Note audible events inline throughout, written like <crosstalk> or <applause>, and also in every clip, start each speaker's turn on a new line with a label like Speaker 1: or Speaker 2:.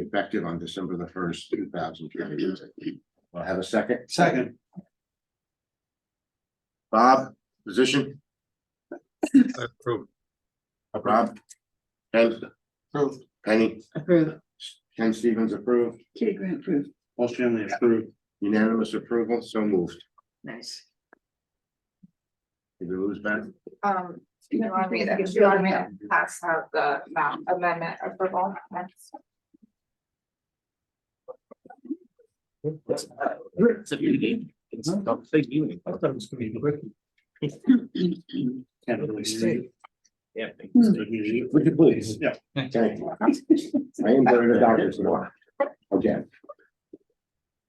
Speaker 1: effective on December the first, two thousand twenty. I'll have a second.
Speaker 2: Second.
Speaker 1: Bob, position,
Speaker 2: Approved.
Speaker 1: Rob, Ken,
Speaker 2: Approved.
Speaker 1: Penny,
Speaker 3: Approved.
Speaker 1: Ken Stevens approved,
Speaker 3: Kitty Grant approved.
Speaker 2: Most generally approved.
Speaker 1: unanimous approval, so moved.
Speaker 3: Nice.
Speaker 1: Did we lose Ben?
Speaker 4: Um, you want me to,
Speaker 3: Yes,
Speaker 4: you want me to pass out the um, amendment approval next?
Speaker 5: It's a big game. It's a big unit.
Speaker 2: I thought it was gonna be quick. Can't really see.
Speaker 5: Yeah.
Speaker 2: Would you please? Yeah.
Speaker 1: Thank you. I am better than doctors now. Again,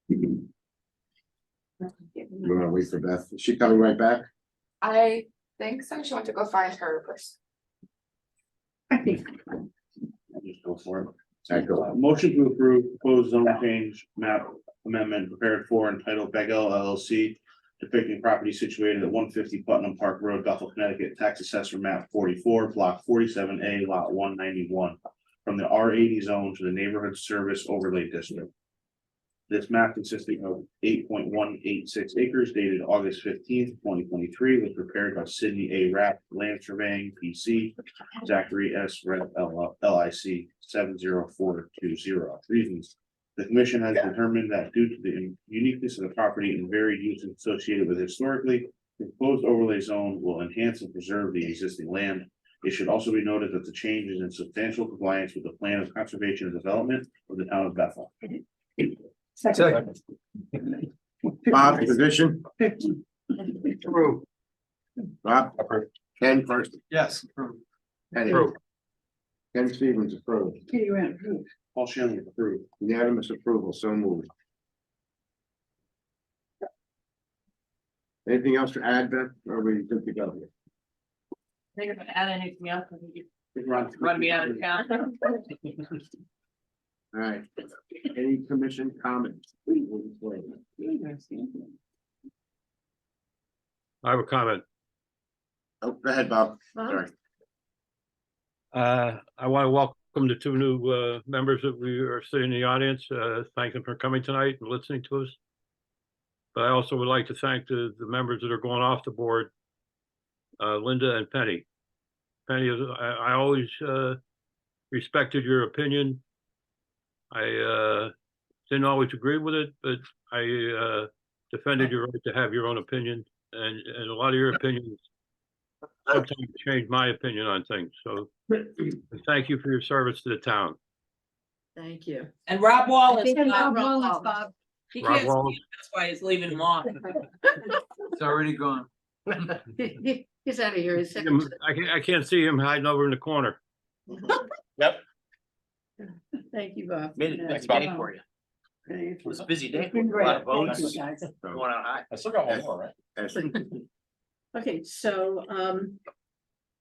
Speaker 1: we're gonna wait for Beth. Is she coming right back?
Speaker 4: I think so. She went to go find her person.
Speaker 3: I think.
Speaker 1: Just go for it. Thank you.
Speaker 2: Motion to approve proposed zone change map amendment prepared for entitled Bagel LLC. Depicting property situated at one fifty Putnam Park Road, Bethel, Connecticut, tax assessor map forty-four, block forty-seven A, lot one ninety-one. From the R eighty zone to the neighborhood service overlay district. This map consisting of eight point one eight six acres dated August fifteenth, twenty twenty-three was prepared by Sidney A. Rapp Land Surveying PC. Zachary S. Red L I C seven zero four two zero. Reasons. The commission has determined that due to the uniqueness of the property and varied uses associated with it historically, the proposed overlay zone will enhance and preserve the existing land. It should also be noted that the change is in substantial compliance with the plan of conservation and development of the town of Bethel.
Speaker 1: Bob, position,
Speaker 2: True.
Speaker 1: Rob, Ken first,
Speaker 2: Yes.
Speaker 1: Penny.
Speaker 5: Approved.
Speaker 1: Ken Stevens approved,
Speaker 3: Kitty Grant approved.
Speaker 2: Paul Shanley approved.
Speaker 1: unanimous approval, so moved. Anything else to add, Beth, or are we good to go here?
Speaker 6: think if I add anything else, I think you
Speaker 2: Run
Speaker 6: run me out of town.
Speaker 1: All right, any commission comments?
Speaker 7: I have a comment.
Speaker 1: Oh, go ahead, Bob, sorry.
Speaker 7: Uh, I want to welcome the two new, uh, members that we are sitting in the audience. Uh, thank them for coming tonight and listening to us. But I also would like to thank the, the members that are going off the board. Uh, Linda and Penny. Penny, is I, I always, uh, respected your opinion. I, uh, didn't always agree with it, but I, uh, defended your right to have your own opinion and, and a lot of your opinions sometimes change my opinion on things, so thank you for your service to the town.
Speaker 3: <laughs> Thank you.
Speaker 6: And Rob Wallace.
Speaker 3: And Bob
Speaker 6: Rob
Speaker 3: Wallace,
Speaker 6: Wallace.
Speaker 3: Bob.
Speaker 6: He
Speaker 7: Rob
Speaker 6: can't speak,
Speaker 7: Wallace.
Speaker 6: that's why he's leaving him off.
Speaker 3: He- he- He's out of here. He's second. to
Speaker 7: I can't, I can't see him hiding over in the corner.
Speaker 3: the- Thank you, Bob.
Speaker 5: Made it a nice day for you. It was a busy day.
Speaker 3: It's been
Speaker 5: A
Speaker 3: great.
Speaker 5: lot of
Speaker 3: Thank you,
Speaker 5: votes.
Speaker 3: guys.
Speaker 5: Going on high.
Speaker 8: I still got one more, right?
Speaker 1: As-
Speaker 3: Okay, so, um,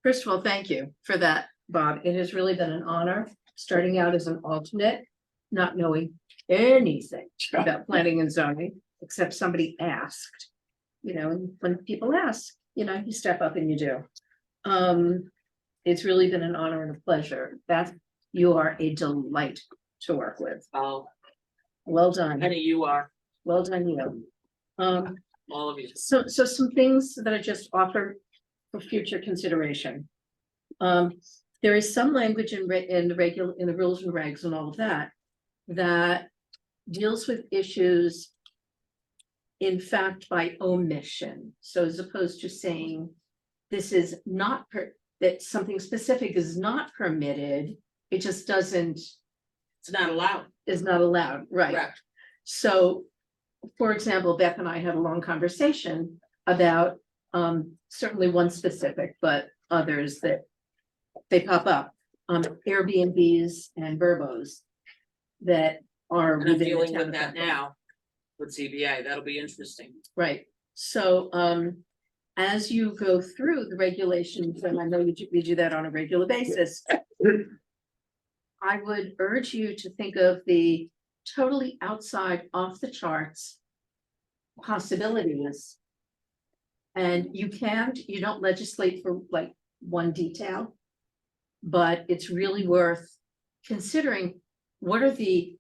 Speaker 3: first of all, thank you for that, Bob. It has really been an honor, starting out as an alternate, not knowing anything about planning and zoning, except somebody asked. You know, and when people ask, you know, you step up and you do. Um, it's really been an honor and a pleasure. Beth, you are a delight to work with.
Speaker 6: Oh,
Speaker 3: Well done,
Speaker 6: honey, you are,
Speaker 3: well done, you. Um,
Speaker 6: all of you.
Speaker 3: so, so some things that I just offer for future consideration. Um, there is some language in re- in the regular, in the rules and regs and all of that, that deals with issues. In fact, by omission, so as opposed to saying, this is not per, that something specific is not permitted. It just doesn't,
Speaker 6: It's not allowed.
Speaker 3: is not allowed, right? So, for example, Beth and I had a long conversation about um certainly one specific, but others that. They pop up, um Airbnbs and Verbos that are.
Speaker 6: And I'm
Speaker 3: within the
Speaker 6: dealing
Speaker 3: town
Speaker 6: with
Speaker 3: of
Speaker 6: that
Speaker 3: Bethel.
Speaker 6: now with CBA. That'll be interesting.
Speaker 3: Right, so um, as you go through the regulations, and I know you do- we do that on a regular basis. I would urge you to think of the totally outside, off the charts. Possibilities. And you can't, you don't legislate for like one detail. But it's really worth considering what are the